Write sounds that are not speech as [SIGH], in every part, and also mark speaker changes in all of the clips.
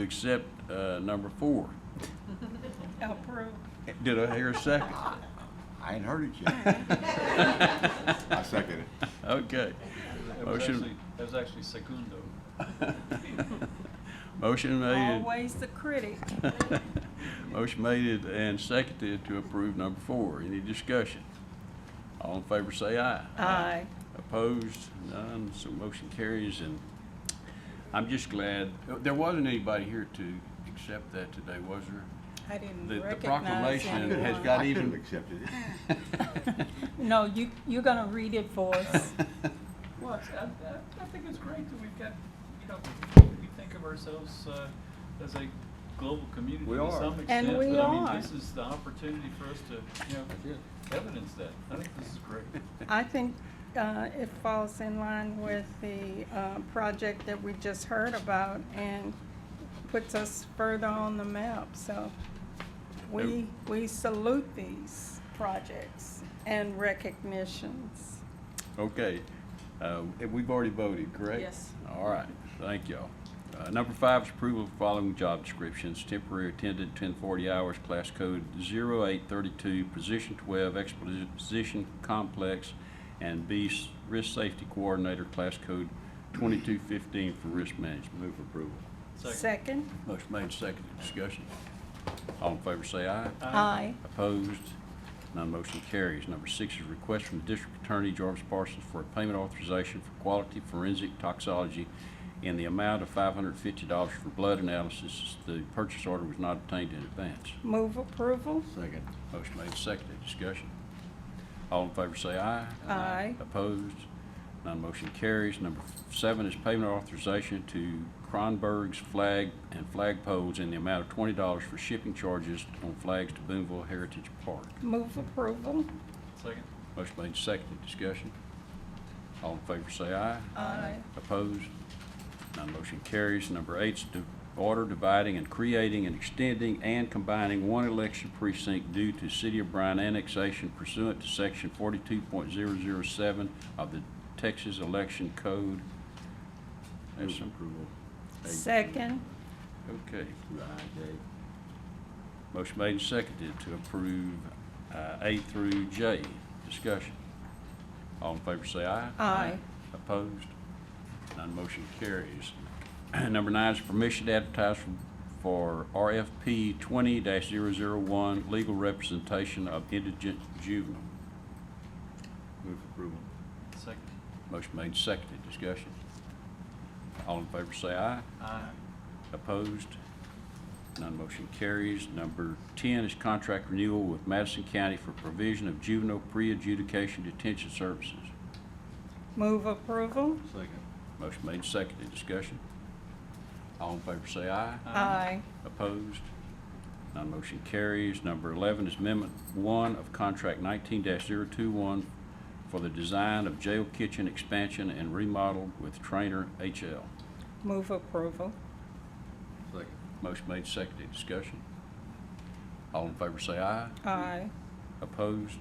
Speaker 1: to accept uh, number four.
Speaker 2: Approve.
Speaker 1: Did I hear a second?
Speaker 3: I ain't heard it yet. I second it.
Speaker 1: Okay. [LAUGHS]
Speaker 4: That was
Speaker 1: Motion.
Speaker 4: actually, that was actually secundo.
Speaker 1: Motion made,
Speaker 2: Always the critic.
Speaker 1: [LAUGHS] motion made and seconded to approve number four. Any discussion? All in favor say aye.
Speaker 2: Aye.
Speaker 1: Opposed? None. So motion carries and I'm just glad, there wasn't anybody here to accept that today, was there?
Speaker 2: I didn't
Speaker 1: The- the
Speaker 2: recognize
Speaker 1: proclamation And
Speaker 2: anyone.
Speaker 1: has
Speaker 3: [LAUGHS]
Speaker 1: got
Speaker 3: I
Speaker 1: even-
Speaker 3: should've accepted it.
Speaker 2: [LAUGHS]
Speaker 1: [LAUGHS]
Speaker 2: No, you, you're gonna read it for us.
Speaker 4: Well, it's- I, I I think it's great that we've got, you know, we think of ourselves uh, as a global community
Speaker 3: We
Speaker 4: to
Speaker 3: are.
Speaker 4: some
Speaker 3: And
Speaker 4: extent.
Speaker 2: we
Speaker 4: But I
Speaker 2: are.
Speaker 4: mean, this is the opportunity for us to, you know, evidence that. I think this is
Speaker 1: [LAUGHS]
Speaker 4: great.
Speaker 2: I think uh, it falls in line with the uh, project that we just heard about and puts us further on the map, so we, we salute these projects and recognitions.
Speaker 1: Okay, uh, and we've already voted, correct?
Speaker 2: Yes.
Speaker 1: All right, thank y'all. Uh, number five is approval of following job descriptions, temporary attendant, ten forty hours, class code 0832, position twelve, exposition complex, and B, s- risk safety coordinator, class code twenty-two fifteen for risk management. Move for approval.
Speaker 4: Second.
Speaker 2: Second?
Speaker 1: Motion made, seconded, discussion. All in favor say aye.
Speaker 2: Aye.
Speaker 1: Opposed? None motion carries. Number six is request from the District Attorney Jarvis Parsons for a payment authorization for quality forensic toxology in the amount of five hundred fifty dollars for blood analysis. The purchase order was not obtained in advance.
Speaker 2: Move approval?
Speaker 1: Second. Motion made, seconded. Discussion. All in favor say aye.
Speaker 2: Aye.
Speaker 1: Opposed? None motion carries. Number seven is payment authorization to Kronberg's Flag and Flag Poles in the amount of twenty dollars for shipping charges on flags to Boonville Heritage Park.
Speaker 2: Move approval?
Speaker 4: Second.
Speaker 1: Motion made, seconded. Discussion. All in favor say aye.
Speaker 2: Aye.
Speaker 1: Opposed? None motion carries. Number eight's to order dividing and creating and extending and combining one election precinct due to City of Bryan annexation pursuant to Section 42.007 of the Texas Election Code. That's approval.
Speaker 2: Second?
Speaker 1: Okay. Motion made and seconded to approve uh, A through J. Discussion. All in favor say aye.
Speaker 2: Aye.
Speaker 1: Opposed? None motion carries. [CLEARS THROAT] Number nine is permission to advertise for for RFP 20-001, legal representation of indigent juvenile.
Speaker 3: Move approval.
Speaker 4: Second.
Speaker 1: Motion made, and seconded. Discussion. All in favor say aye.
Speaker 4: Aye.
Speaker 1: Opposed? None motion carries. Number 10 is contract renewal with Madison County for provision of juvenile pre-adjudication detention services.
Speaker 2: Move approval?
Speaker 3: Second.
Speaker 1: Motion made, and seconded. Discussion. All in favor say aye.
Speaker 2: Aye.
Speaker 1: Opposed? None motion carries. Number 11 is Amendment 1 of Contract 19-021 for the design of jail kitchen expansion and remodel with Trainer HL.
Speaker 2: Move approval?
Speaker 3: Second.
Speaker 1: Motion made, seconded. Discussion. All in favor say aye.
Speaker 2: Aye.
Speaker 1: Opposed?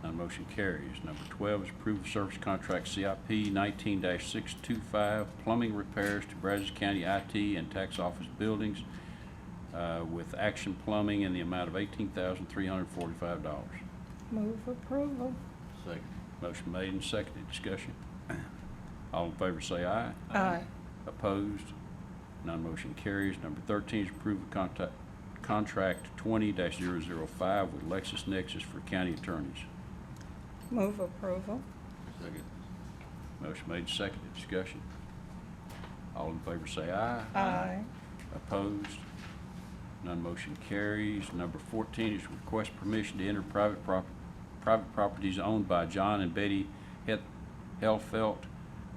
Speaker 1: None motion carries. Number 12 is approve of service contract CIP 19-625 plumbing repairs to Brazos County IT and tax office buildings uh, with Action Plumbing in the amount of $18,345.
Speaker 2: Move approval?
Speaker 3: Second.
Speaker 1: Motion made and seconded. Discussion. All in favor say aye.
Speaker 2: Aye.
Speaker 1: Opposed? None motion carries. Number 13 is approve of contact- contract 20-005 with LexisNexis for county attorneys.
Speaker 2: Move approval?
Speaker 3: Second.
Speaker 1: Motion made, seconded, discussion. All in favor say aye.
Speaker 2: Aye.
Speaker 1: Opposed? None motion carries. Number 14 is request permission to enter private prop, private properties owned by John and Betty Het- Helfelt,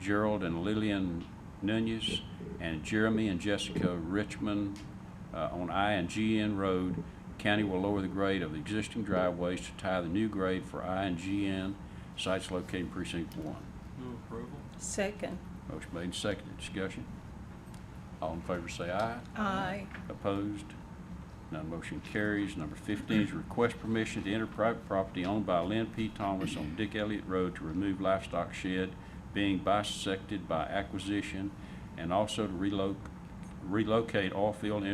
Speaker 1: Gerald and Lillian Nunez, and Jeremy and Jessica Richmond uh, on I and GN Road. County will lower the grade of the existing driveways to tie the new grade for I and GN. Sites located in precinct 1.
Speaker 4: Move approval.
Speaker 2: Second?
Speaker 1: Motion made and seconded. Discussion. All in favor say aye.
Speaker 2: Aye.
Speaker 1: Opposed? None motion carries. Number 15 is request permission to enter private property owned by Lynn P. Thomas on Dick Elliott Road to remove livestock shed being bisected by acquisition and also to relocate relocate all field